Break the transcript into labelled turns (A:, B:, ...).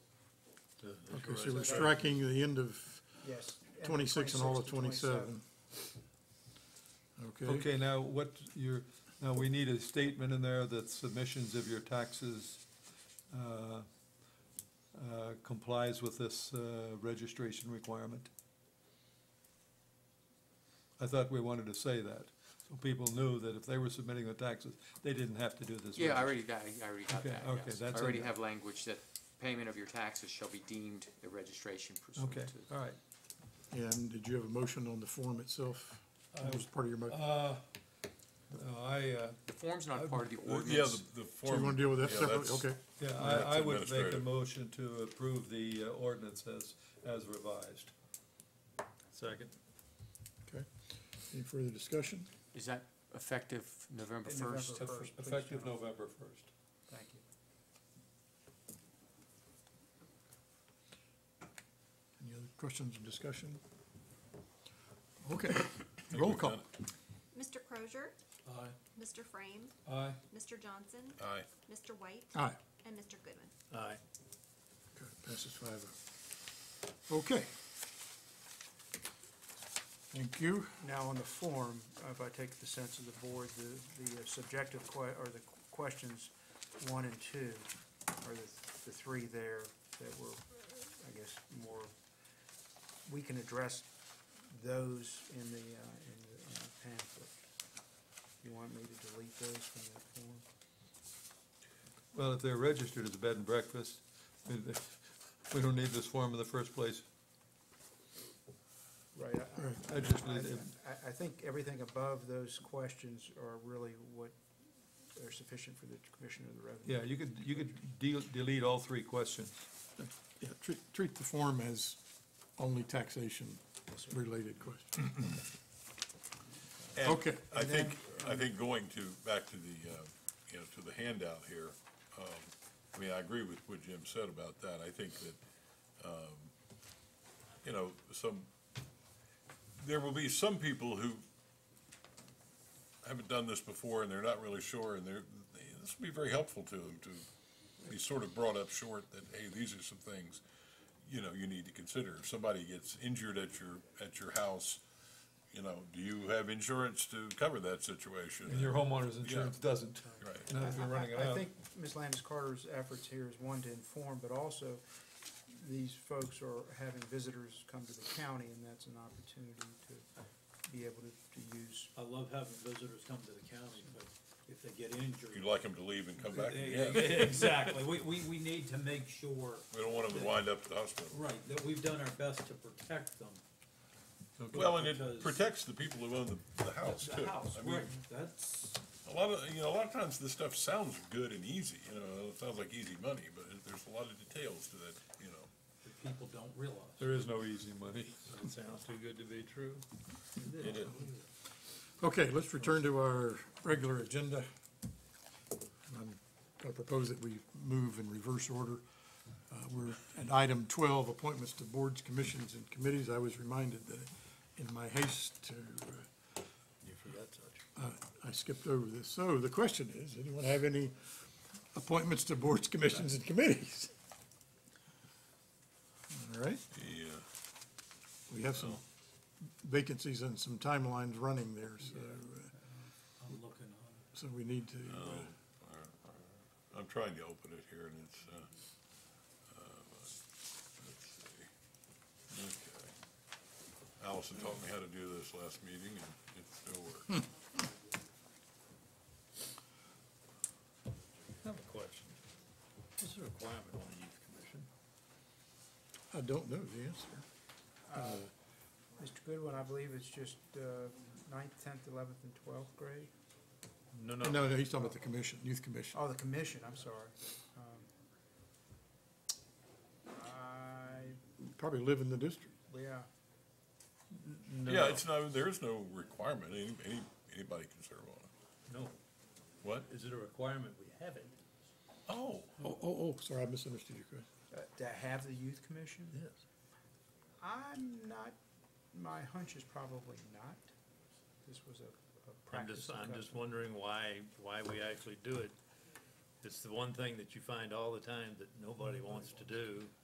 A: the- the
B: Okay, so
A: horizon.
B: we're striking the end of
C: Yes. and
B: twenty-six and all of
C: 26 to
B: twenty-seven. Okay,
D: Okay, now what you're, now we need a statement in there that submissions of your taxes uh, uh, complies with this uh, registration requirement. I thought we wanted to say that, so people knew that if they were submitting the taxes, they didn't have to do this.
E: Yeah,
D: registration.
E: I already got, I already got
D: Okay,
E: that,
D: okay,
E: yes. I
D: that's in
E: already
D: there.
E: have language that payment of your taxes shall be deemed a registration pursuant
D: Okay,
E: to.
D: all right.
B: and did you have a motion on the form itself? That was part of your motion.
D: Uh, no, I, uh,
E: The form's not part of the
A: The- Yeah,
E: ordinance.
A: the, the
B: Do
A: form.
B: you wanna deal with that
A: yeah,
B: separately?
A: that's-
B: Okay,
D: yeah,
A: That's
D: I, I would make a
A: administrative.
D: motion to approve the uh, ordinance as, as revised. Second.
B: okay. Any further discussion?
E: Is that effective November
C: In November.
E: first?
C: First, please,
D: Effective
C: John.
D: November first.
C: Thank you.
B: Any other questions or discussion? Okay, roll
A: we've
B: call.
A: done it.
F: Mr. Crozier,
D: Aye.
F: Mr. Frame,
D: Aye.
F: Mr. Johnson,
A: Aye.
F: Mr. White,
B: Aye.
F: and Mr. Goodwin.
B: Aye. Okay, passes five oh. Okay. Thank you.
C: Now, on the form, if I take the sense of the board, the, the subjective que, or the questions one and two are the, the three there that were, I guess, more, we can address those in the, uh, in the in the pamphlet. You want me to delete those from that form?
D: Well, if they're registered as a bed and breakfast, then they- we don't need this form in the first place.
C: Right, I-
B: All right,
D: I just
C: I,
D: need, it.
C: I- I think everything above those questions are really what are sufficient for the Commissioner of the Revenue.
D: yeah, you could, you could deal, delete all three questions.
B: yeah, treat, treat the form as only taxation-related question.
A: And
B: Okay.
A: I
B: And um,
A: think, I think going to, back to the, uh, you know, to the handout here, um, I mean, I agree with what Jim said about that. I think that, um, you know, some, there will be some people who haven't done this before and they're not really sure and they're, they- this will be very helpful to them to be sort of brought up short that, hey, these are some things, you know, you need to consider. If somebody gets injured at your, at your house, you know, do you have insurance to cover that situation?
D: And your homeowner's insurance doesn't.
A: Right.
D: Not if you're running it
C: I- I- I
D: out.
C: think Ms. Landis Carter's efforts here is one to inform, but also these folks are having visitors come to the county, and that's an opportunity to be able to, to use.
G: I love having visitors come to the county, but if they get injured.
A: You'd like them to leave and come back? Yeah.
G: Exactly, we, we, we need to make sure,
A: We don't want them to wind up at the hospital.
G: right, that we've done our best to protect them.
A: Well, and it
G: Because-
A: protects the people who own the, the house too.
G: The house,
A: I mean,
G: right, that's,
A: A lot of, you know, a lot of times this stuff sounds good and easy, you know, it sounds like easy money, but it- there's a lot of details to that, you know.
G: that people don't realize.
D: There is no easy money.
G: It sounds too good to be true.
A: It is.
B: Okay, let's return to our regular agenda. And I'm gonna propose that we move in reverse order. Uh, we're at item twelve, appointments to boards, commissions, and committees. I was reminded that in my haste to, uh,
G: You forgot such.
B: I skipped over this. So the question is, anyone have any appointments to boards, commissions, and committees? All right,
A: Yeah,
B: we have some vacancies and some timelines running there, so, uh,
G: I'm looking on,
B: so we need to, uh,
A: I'm trying to open it here and it's, uh, uh, let's see. Okay. Allison taught me how to do this last meeting and it still works.
D: I have a question. What's the requirement on the youth commission?
B: I don't know the answer.
C: Mr. uh, Goodwin, I believe it's just uh, ninth, tenth, eleventh, and twelfth grade?
D: No,
B: No, no, he's talking about the commission, youth commission.
C: Oh, the commission, I'm sorry. Um, I,
B: Probably live in the district.
C: yeah,
A: Yeah, it's no, there is no requirement, any, any, anybody can serve on it.
G: no,
A: What?
G: is it a requirement we have it?
A: Oh,
B: Oh, oh, oh, sorry, I misunderstood your question.
C: uh, to have the youth commission?
B: Yes.
C: I'm not, my hunch is probably not. This was a- a
H: I'm
C: practice.
H: just,
C: and
H: I'm just
C: custom.
H: wondering why, why we actually do it. It's the one thing that you find all the time that nobody wants to do.